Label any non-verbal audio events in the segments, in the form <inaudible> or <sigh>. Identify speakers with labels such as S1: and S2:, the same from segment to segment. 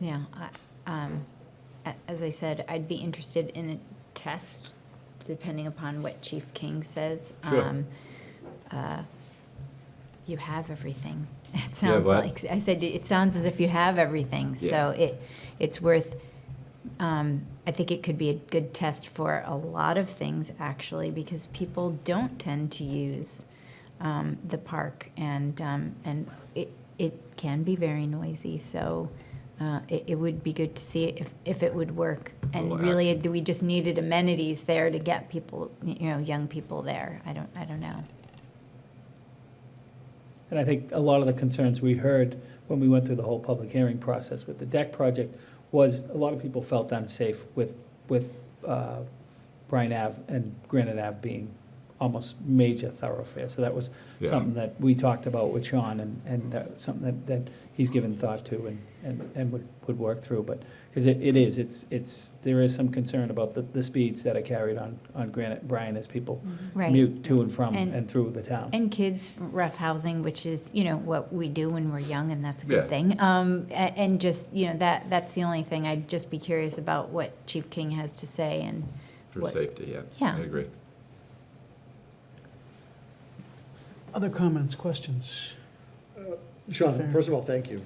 S1: Yeah, I, um, a- as I said, I'd be interested in a test, depending upon what Chief King says.
S2: Sure.
S1: Um, uh, You have everything, <laughs> it sounds
S2: but-
S1: like, I said, it sounds as if you have everything, so it, it's worth, um, I think it could be a good test for a lot of things, actually, because people don't tend to use, um, the park, and, um, and it, it can be very noisy, so, uh, it, it would be good to see if, if it would work.
S2: Well,
S1: And really, we just needed amenities there to get people, you know, young people there, I don't, I don't know.
S3: And I think a lot of the concerns we heard when we went through the whole public hearing process with the deck project was a lot of people felt unsafe with, with uh, Bryan Ave and Granite Ave being almost major thoroughfares. So that was
S2: Yeah.
S3: something that we talked about with Sean and, and that was something that, that he's given thought to and, and, and would, would work through. But, because it, it is, it's, it's, there is some concern about the, the speeds that are carried on, on Granite, Bryan as people
S1: Right.
S3: commute to and from
S1: And-
S3: and through the town.
S1: And kids rough housing, which is, you know, what we do when we're young, and that's a
S2: Yeah.
S1: good thing. Um, a- and just, you know, that, that's the only thing, I'd just be curious about what Chief King has to say, and,
S2: For
S1: What-
S2: safety, yeah.
S1: Yeah.
S2: I agree.
S4: Other comments, questions?
S5: Sean,
S4: Fair.
S5: first of all, thank you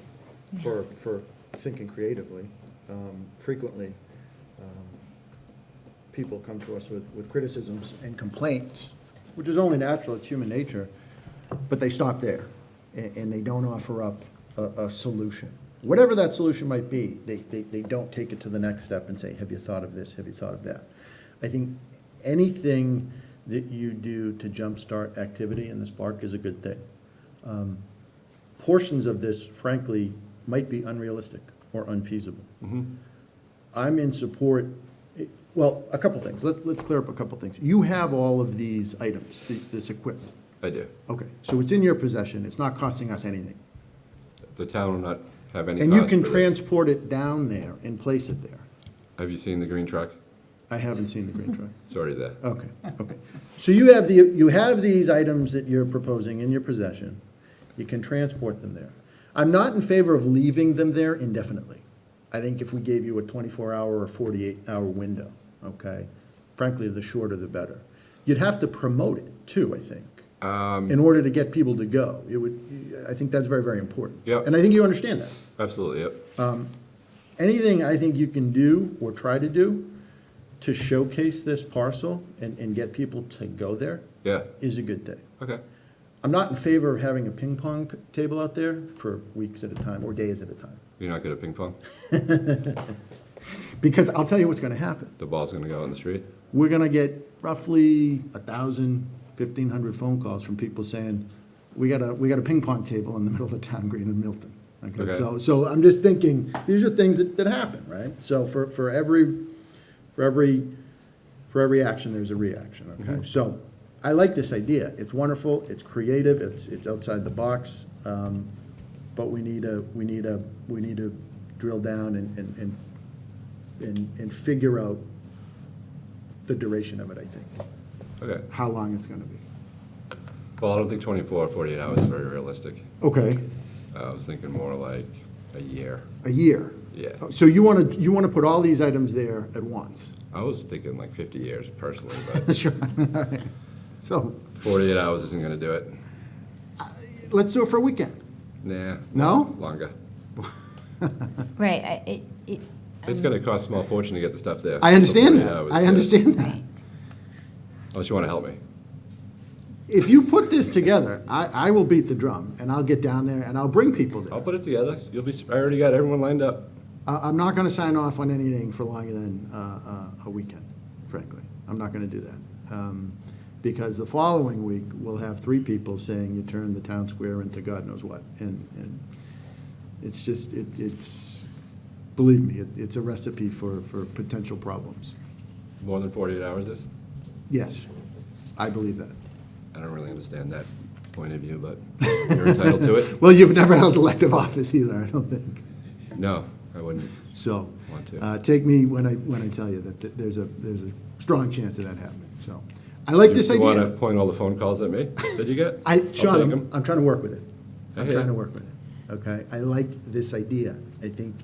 S5: for, for thinking creatively. Um, Frequently, um, people come to us with, with criticisms and complaints, which is only natural, it's human nature, but they stop there, and, and they don't offer up a, a solution. Whatever that solution might be, they, they, they don't take it to the next step and say, have you thought of this, have you thought of that? I think anything that you do to jumpstart activity in this park is a good thing portions of this, frankly, might be unrealistic or unfeasible.
S2: Mm-hmm.
S5: I'm in support, well, a couple things. Let, let's clear up a couple things. You have all of these items, th- this equipment.
S2: I do.
S5: Okay, so it's in your possession. It's not costing us anything.
S2: The town will not have any
S5: And you
S2: cost
S5: can
S2: for this.
S5: transport it down there and place it there.
S2: Have you seen the green truck?
S5: I haven't seen the green truck.
S2: It's already there.
S5: Okay, okay. So you have the, you have these items that you're proposing in your possession. You can transport them there. I'm not in favor of leaving them there indefinitely. I think if we gave you a twenty-four hour or forty-eight hour window, okay? Frankly, the shorter the better. You'd have to promote it too, I think, in order to get people to go. It would, I think that's very, very important.
S2: Yeah.
S5: And I think you understand that
S2: Absolutely, yep.
S5: anything I think you can do or try to do to showcase this parcel and, and get people to go there
S2: Yeah,
S5: is a good thing.
S2: okay.
S5: I'm not in favor of having a ping pong p- table out there for weeks at a time or days at a time.
S2: You're not good at ping pong?
S5: Because I'll tell you what's gonna happen.
S2: The ball's gonna go out in the street?
S5: We're gonna get roughly a thousand, fifteen hundred phone calls from people saying, we got a, we got a ping pong table in the <laughs> middle of the town green in Milton. Okay,
S2: Okay.
S5: so, so I'm just thinking, these are things that, that happen, right? So for, for every, for every for every action, there's a reaction, okay? So I like this idea. It's wonderful, it's creative, it's, it's outside the box. um, But we need a, we need a, we need to drill down and, and, and, and and figure out the duration of it, I think,
S2: Okay.
S5: how long it's gonna be.
S2: Well, I don't think 24 or 48 hours is very realistic.
S5: Okay,
S2: Uh, I was thinking more like a year.
S5: a year.
S2: Yeah.
S5: So you wanna, you wanna put all these items there at once?
S2: I was thinking like 50 years personally,
S5: <laughs>
S2: but
S5: Sure. So,
S2: 48 hours isn't gonna do it.
S5: let's do it for a weekend.
S2: Nah.
S5: No?
S2: Longer.
S1: right, I, it, it, Um,
S2: It's gonna cost a small fortune to get the stuff there.
S5: I understand
S2: 48
S5: that,
S2: hours,
S5: I
S2: yeah.
S5: understand that.
S1: right.
S2: Unless you wanna help me.
S5: If you put this together, I, I will beat the drum and I'll get down there and I'll bring people
S2: I'll
S5: there.
S2: put it together. You'll be, I already got everyone lined up.
S5: I, I'm not gonna sign off on anything for longer than, uh, uh, a weekend, frankly. I'm not gonna do that. Um, because the following week, we'll have three people saying you turned the town square into God knows what. And, and it's just, it, it's, believe me, it, it's a recipe for, for potential problems.
S2: More than 48 hours is?
S5: Yes, I believe that.
S2: I don't really understand that point of view, but you're entitled to it.
S5: <laughs> Well, you've never held elective office either, I don't think.
S2: No, I wouldn't.
S5: So,
S2: Want to.
S5: uh, take me when I, when I tell you that th- there's a, there's a strong chance of that happening, so. I like this
S2: You want to
S5: idea.
S2: point all the phone calls at me that you get?
S5: I,
S2: I'll
S5: Sean,
S2: take
S5: I'm,
S2: 'em.
S5: I'm trying to work with it.
S2: I
S5: I'm
S2: hear
S5: trying
S2: you.
S5: to work with it, okay? I like this idea. I think